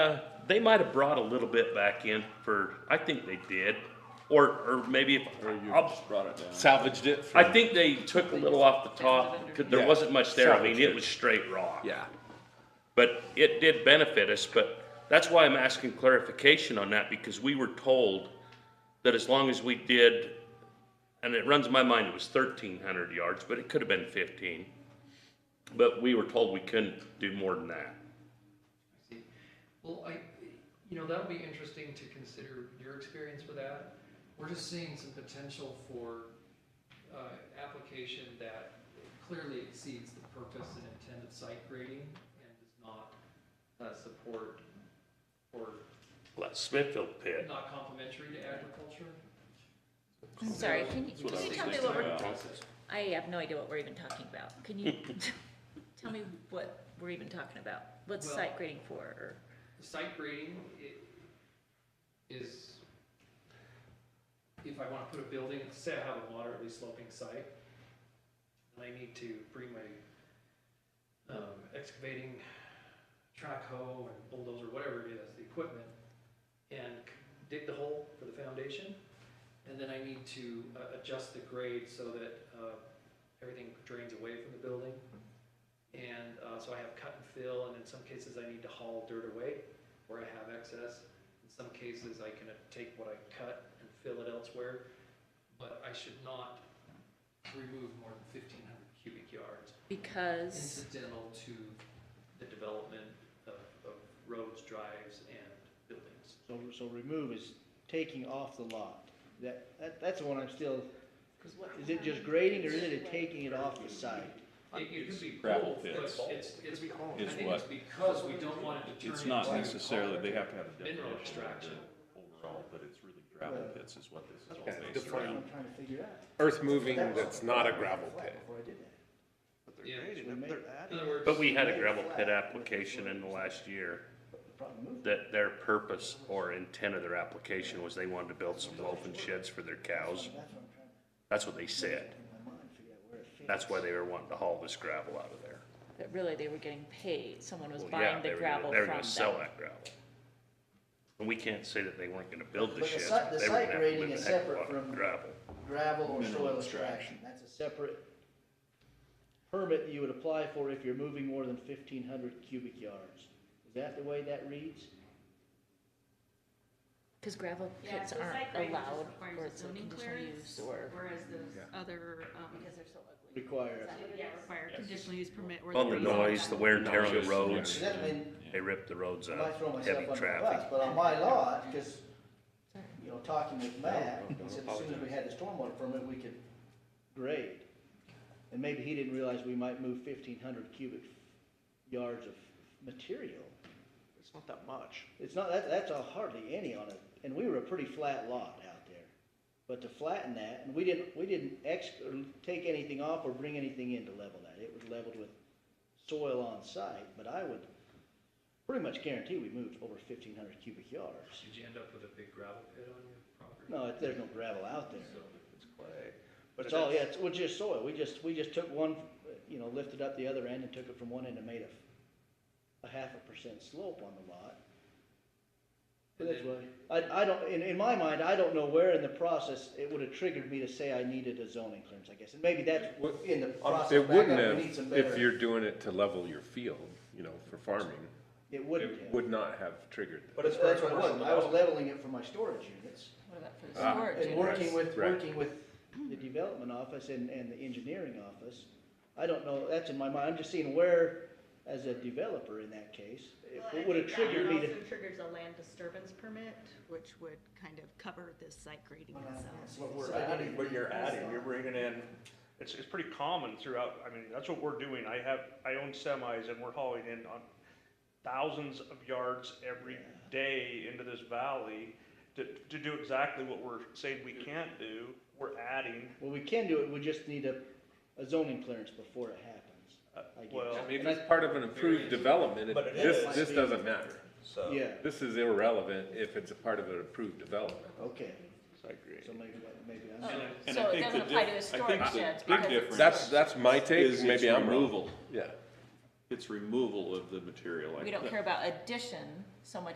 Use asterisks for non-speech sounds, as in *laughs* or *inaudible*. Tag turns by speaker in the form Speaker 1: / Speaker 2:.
Speaker 1: Uh, they might have brought a little bit back in for, I think they did, or, or maybe if,
Speaker 2: Or you
Speaker 1: I'll-
Speaker 2: just brought it down.
Speaker 3: salvaged it. From,
Speaker 1: I think they took a little off the top, because there
Speaker 3: Yeah.
Speaker 1: wasn't much there, I mean,
Speaker 3: Salvaged
Speaker 1: it
Speaker 3: it.
Speaker 1: was straight rock.
Speaker 2: Yeah.
Speaker 1: But it did benefit us, but that's why I'm asking clarification on that, because we were told that as long as we did, and it runs in my mind, it was thirteen hundred yards, but it could have been fifteen. But we were told we couldn't do more than that.
Speaker 4: See, Well, I, you know, that'll be interesting to consider your experience with that. We're just seeing some potential for, uh, application that clearly exceeds the purpose and intent of site grading and does not, uh, support or
Speaker 1: Like Smithfield pit.
Speaker 4: not complementary to agriculture.
Speaker 5: I'm sorry, can you,
Speaker 2: what
Speaker 5: can
Speaker 2: I
Speaker 5: you
Speaker 2: was
Speaker 5: tell me what we're,
Speaker 2: thinking.
Speaker 5: I have no idea what we're even talking about.
Speaker 2: *laughs*
Speaker 5: Can you tell me what we're even talking about? What's
Speaker 4: Well-
Speaker 5: site grading for, or,
Speaker 4: The site grading i- is, if I wanna put a building, say I have a moderately sloping site, and I need to bring my, um, excavating track hoe and bulldozer, whatever it is, the equipment, and c- dig the hole for the foundation, and then I need to, uh, adjust the grade so that, uh, everything drains away from the building. And uh, so I have cut and fill, and in some cases I need to haul dirt away where I have excess. In some cases, I can take what I cut and fill it elsewhere, but I should not remove more than fifteen hundred cubic yards
Speaker 5: because,
Speaker 4: incidental to the development of, of roads, drives, and buildings.
Speaker 6: So, so remove is taking off the lot. That, that, that's the one I'm still, is it just grading or is it taking it off the site?
Speaker 4: It it could be
Speaker 2: Gravel
Speaker 4: both, but
Speaker 2: pits.
Speaker 4: it's, it's, I
Speaker 2: Is
Speaker 4: think it's
Speaker 2: what-
Speaker 4: because we don't want it to turn
Speaker 2: It's
Speaker 4: into.
Speaker 2: not necessarily, they have to have a
Speaker 4: Mineral
Speaker 2: definition of
Speaker 4: extraction.
Speaker 2: it overall, but it's really gravel
Speaker 6: Right.
Speaker 2: pits is what this is
Speaker 7: Okay,
Speaker 2: all based
Speaker 6: That's what
Speaker 2: around.
Speaker 6: I'm trying to figure out.
Speaker 7: earth moving that's not a gravel pit.
Speaker 6: Before I did that.
Speaker 4: Yeah. In
Speaker 6: Yeah.
Speaker 4: other words.
Speaker 1: But we had a gravel pit application in the last year that their purpose or intent of their application was they wanted to build some loafing sheds for their cows. That's what they said. That's why they were wanting to haul this gravel out of there.
Speaker 5: but really, they were getting paid, someone was
Speaker 1: Well, yeah,
Speaker 5: buying
Speaker 1: they
Speaker 5: the
Speaker 1: were gonna-
Speaker 5: gravel
Speaker 1: They were
Speaker 5: from
Speaker 1: gonna sell
Speaker 5: them.
Speaker 1: that gravel. And we can't say that they weren't gonna build the
Speaker 6: But the
Speaker 1: sheds.
Speaker 6: site- the
Speaker 1: They were gonna
Speaker 6: site
Speaker 1: have to
Speaker 6: grading
Speaker 1: live
Speaker 6: is
Speaker 1: a heck of a
Speaker 6: separate
Speaker 1: lot of
Speaker 6: from-
Speaker 1: Gravel.
Speaker 6: Gravel or
Speaker 2: Mineral
Speaker 6: soil
Speaker 2: extraction.
Speaker 6: extraction, that's a separate permit that you would apply for if you're moving more than fifteen hundred cubic yards. Is that the way that reads?
Speaker 5: Cause gravel
Speaker 8: Yeah,
Speaker 5: pits
Speaker 8: so site
Speaker 5: aren't
Speaker 8: grading just
Speaker 5: allowed,
Speaker 8: requires
Speaker 5: or
Speaker 8: a
Speaker 5: it's a
Speaker 8: zoning
Speaker 5: conditional
Speaker 8: clearance,
Speaker 5: use, or,
Speaker 8: Whereas those other, um,
Speaker 6: Require.
Speaker 8: yeah, require conditional use permit. or
Speaker 1: On the
Speaker 8: rezone
Speaker 1: noise,
Speaker 8: that.
Speaker 1: the wear and tear on the
Speaker 2: Noise,
Speaker 6: Does
Speaker 1: roads,
Speaker 2: yeah.
Speaker 6: that mean
Speaker 1: they ripped the roads
Speaker 6: I might
Speaker 1: out,
Speaker 6: throw myself
Speaker 1: heavy
Speaker 6: under the bus,
Speaker 1: traffic.
Speaker 6: but on my lot, because, you know, talking with Matt, he said as soon as we had the stormwater permit, we could grade. And maybe he didn't realize we might move fifteen hundred cubic yards of material.
Speaker 9: It's not that much.
Speaker 6: It's not, that, that's a hardly any on it, and we were a pretty flat lot out there. But to flatten that, and we didn't, we didn't ex, or take anything off or bring anything in to level that, it was leveled with soil on site, but I would pretty much guarantee we moved over fifteen hundred cubic yards.
Speaker 4: Did you end up with a big gravel pit on your property?
Speaker 6: No, it- there's no gravel out there.
Speaker 9: It's clay. But
Speaker 6: It's all, yeah, it's, well, just soil, we just, we just took one, you know, lifted up the other end and took it from one end and made a, a half a percent slope on the lot. But that's why, I, I don't, in, in my mind, I don't know where in the process it would have triggered me to say I needed a zoning clearance, I guess, and maybe that's in the process.
Speaker 7: It
Speaker 6: back up,
Speaker 7: wouldn't
Speaker 6: we need some
Speaker 7: have, if
Speaker 6: better-
Speaker 7: you're doing it to level your field, you know, for farming,
Speaker 6: It wouldn't
Speaker 7: it
Speaker 6: have.
Speaker 7: would not have triggered that.
Speaker 9: But it's
Speaker 6: That's
Speaker 9: for
Speaker 6: what it was,
Speaker 9: commercial
Speaker 6: I was
Speaker 9: development.
Speaker 6: leveling it for my storage units.
Speaker 5: what about for the
Speaker 7: Ah,
Speaker 5: storage?
Speaker 6: And working with,
Speaker 7: Right.
Speaker 6: working with the development office and, and the engineering office, I don't know, that's in my mind, I'm just seeing where, as a developer in that case,
Speaker 8: Well, I
Speaker 6: it would have
Speaker 8: think
Speaker 6: triggered me
Speaker 8: That
Speaker 6: to.
Speaker 8: one also triggers a land disturbance permit, which would kind of cover this site grading
Speaker 6: Well, I can't see
Speaker 8: itself.
Speaker 6: it.
Speaker 2: We're
Speaker 6: So I didn't
Speaker 2: adding,
Speaker 6: even
Speaker 2: but you're
Speaker 6: think that's
Speaker 2: adding,
Speaker 6: on.
Speaker 2: you're bringing in,
Speaker 10: It's, it's pretty common throughout, I mean, that's what we're doing, I have, I own semis and we're hauling in on thousands of yards every day into this valley to, to do exactly what we're saying we can't do, we're adding,
Speaker 6: Well, we can do it, we just need a, a zoning clearance before it happens, I
Speaker 10: well-
Speaker 6: guess.
Speaker 7: I mean,
Speaker 6: And
Speaker 7: if
Speaker 6: I-
Speaker 7: it's part of an approved development,
Speaker 2: But it
Speaker 7: it- this,
Speaker 2: is.
Speaker 7: this doesn't matter.
Speaker 2: so.
Speaker 6: Yeah,
Speaker 7: This is irrelevant if it's a part of an approved development.
Speaker 6: okay,
Speaker 2: I agree.
Speaker 6: so maybe, maybe
Speaker 5: Oh,
Speaker 6: I'm,
Speaker 2: and I
Speaker 5: So it
Speaker 2: think the
Speaker 5: doesn't apply
Speaker 2: diff-
Speaker 5: to the
Speaker 2: I think
Speaker 5: storage
Speaker 2: the
Speaker 5: sheds,
Speaker 2: big
Speaker 5: because it's.
Speaker 2: difference
Speaker 7: That's, that's my take,
Speaker 2: Is its
Speaker 7: maybe I'm wrong.
Speaker 2: removal,
Speaker 7: Yeah.
Speaker 2: it's removal of the material. I
Speaker 5: We don't
Speaker 2: think.
Speaker 5: care about addition so much